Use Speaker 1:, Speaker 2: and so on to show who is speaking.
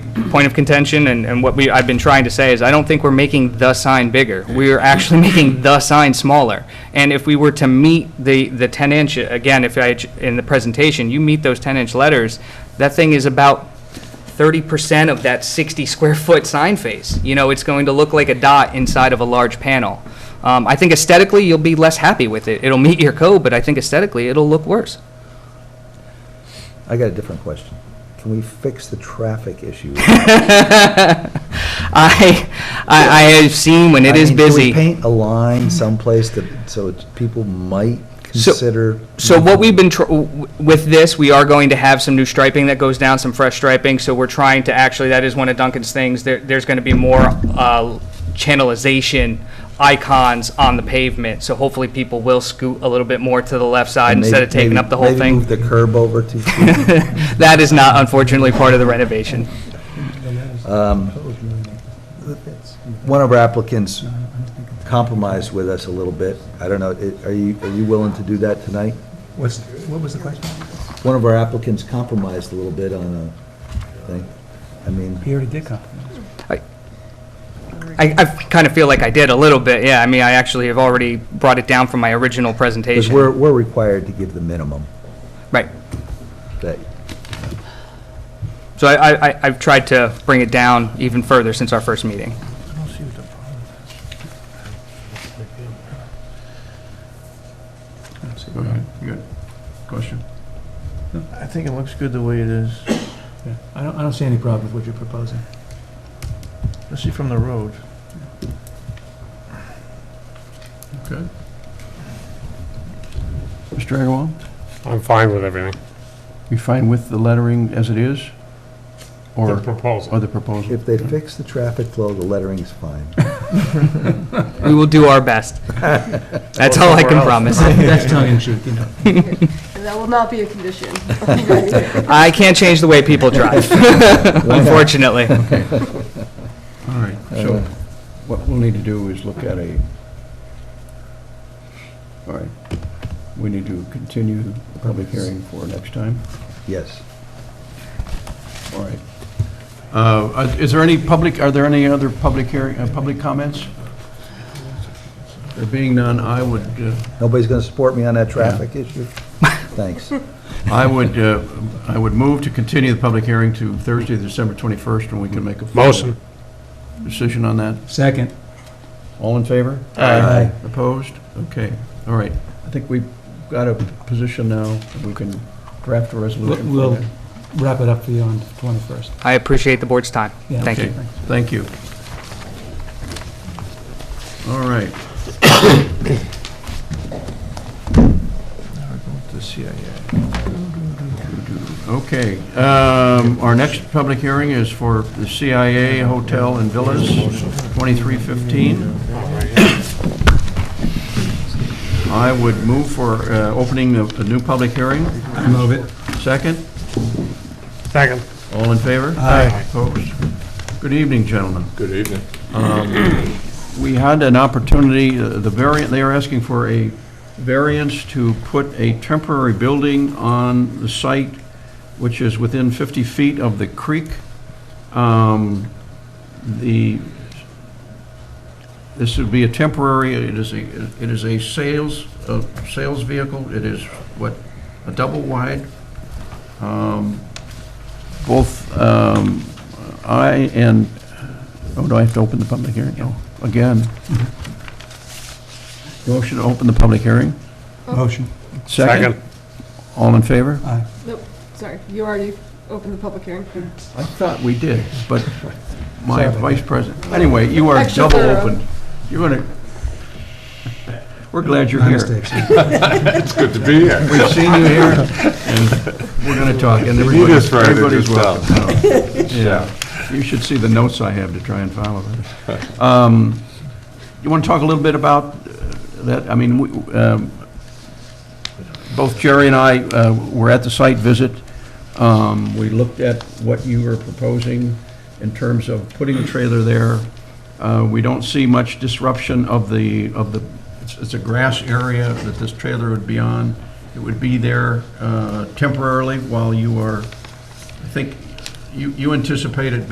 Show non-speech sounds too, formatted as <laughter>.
Speaker 1: point of contention, and, and what we, I've been trying to say is, I don't think we're making the sign bigger. We are actually <laughs> making the sign smaller. And if we were to meet the, the 10-inch, again, if I, had- in the presentation, you meet those 10-inch letters, that thing is about 30% of that 60-square-foot sign face. You know, it's going to look like a dot inside of a large panel. Um, I think aesthetically, you'll be less happy with it. It'll meet your code, but I think aesthetically, it'll look worse. <laughs>
Speaker 2: I got a different question. Can we fix the
Speaker 1: <laughs>
Speaker 2: traffic issue?
Speaker 1: I, I, I have seen when it
Speaker 2: I
Speaker 1: is
Speaker 2: mean, can we
Speaker 1: busy.
Speaker 2: paint a line someplace that, so it's- people might
Speaker 1: So-
Speaker 2: consider.
Speaker 1: So what we've been, tr- w- with this, we are going to have some new striping that goes down, some fresh striping, so we're trying to, actually, that is one of Duncan's things, there, there's gonna be more, uh, channelization icons on the pavement, so hopefully people will scoot a little bit more to the left side
Speaker 2: Maybe-
Speaker 1: instead of taking
Speaker 2: maybe-
Speaker 1: up the whole
Speaker 2: Maybe move
Speaker 1: thing.
Speaker 2: the curb over
Speaker 1: <laughs>
Speaker 2: two feet.
Speaker 1: That is not unfortunately part of the renovation.
Speaker 3: Um,
Speaker 2: One of our applicants compromised with us a little bit. I don't know, i- are you, are you willing to do that tonight?
Speaker 3: What's, what was the question?
Speaker 2: One of our applicants compromised a little bit on a thing. I mean,
Speaker 3: He already did come.
Speaker 1: I, I kind of feel like I did a little bit, yeah, I mean, I actually have already brought it down from my original
Speaker 2: because
Speaker 1: presentation.
Speaker 2: we're, we're required to give the minimum
Speaker 1: Right.
Speaker 2: that,
Speaker 1: So I, I- I, I've tried to bring it down even further since our first meeting.
Speaker 4: Good. Question?
Speaker 5: I think it looks good the way it is,
Speaker 3: Yeah. I don't, I don't see any problem with what you're proposing.
Speaker 5: especially from the road.
Speaker 4: Okay. Mr. Agarwal,
Speaker 6: I'm fine with everything,
Speaker 4: you fine with the lettering as it is?
Speaker 6: the
Speaker 4: Or,
Speaker 6: proposal.
Speaker 4: or the proposal?
Speaker 2: if they
Speaker 4: <laughs>
Speaker 2: fix the traffic flow, the
Speaker 1: <laughs>
Speaker 2: lettering's fine.
Speaker 1: We will do our best. That's all I can promise.
Speaker 3: That's tongue in cheek, you know.
Speaker 7: And that will not be a condition. <laughs> Right.
Speaker 1: I can't change the way people drive, unfortunately.
Speaker 4: All right, so Uh, what we'll need to do is look at a, all right, we need to continue the public hearing for next time.
Speaker 2: <laughs> Yes.
Speaker 4: All right. Uh, are- Is there any public, are there any other public hearing, uh, public comments? There being none, I would, uh,
Speaker 2: Nobody's going to support me on that traffic issue? Thanks.
Speaker 4: I would, uh, I would move to continue the public hearing to Thursday, December 21st, when we can make a formal
Speaker 6: Motion.
Speaker 4: decision on that.
Speaker 3: Second.
Speaker 4: All in favor?
Speaker 2: Aye.
Speaker 4: Opposed? Okay, all right. I think we've got a position now, we can draft a
Speaker 3: We'll
Speaker 4: resolution. for
Speaker 3: we'll
Speaker 4: that.
Speaker 3: wrap it up for you on the 21st.
Speaker 1: I appreciate the board's time.
Speaker 3: Yeah.
Speaker 1: Thank you.
Speaker 4: Okay, Thank you. All right.
Speaker 5: Now we're going to the CIA.
Speaker 4: Okay, um, our next public hearing is for the CIA Hotel and Villas, 2315. I would move for uh, opening the the new public hearing.
Speaker 3: Move it.
Speaker 4: Second,
Speaker 6: Second.
Speaker 4: all in favor?
Speaker 3: Aye.
Speaker 4: Opposed? Good evening, gentlemen. Um,
Speaker 6: Good evening.
Speaker 4: We had an opportunity, uh, the variant, they are asking for a variance to put a temporary building on the site, which is within 50 feet of the creek. Um, The, this would be a temporary, it is a, it is a sales, a sales vehicle. It is, what, a double wide? Um, Both um, I and, oh, do I have to open the public hearing? No, again. Motion to open the public hearing?
Speaker 3: Motion.
Speaker 6: Second.
Speaker 4: All in favor?
Speaker 3: Aye.
Speaker 7: Nope, sorry, you already opened the public hearing.
Speaker 4: I thought we did, but my
Speaker 3: Sorry.
Speaker 4: vice president, anyway, you are
Speaker 7: Extra
Speaker 4: double
Speaker 7: thorough.
Speaker 4: opened. You're gonna, we're glad you're
Speaker 3: My
Speaker 4: here.
Speaker 3: mistakes.
Speaker 6: It's good to be here.
Speaker 4: We've seen you
Speaker 6: <laughs>
Speaker 4: here, and we're gonna talk, and
Speaker 6: You
Speaker 4: everybody-
Speaker 6: just write it
Speaker 4: everybody's
Speaker 6: yourself.
Speaker 4: welcome. Yeah, you should see the notes I have to try and follow that. Um, You want to talk a little bit about uh, that? I mean, we- um, both Jerry and I uh, were at the site visit. Um, We looked at what you were proposing in terms of putting a trailer there. Uh, We don't see much disruption of the, of the, it's- it's a grass area that this trailer would be on. It would be there uh, temporarily while you are, I think, you you anticipate it being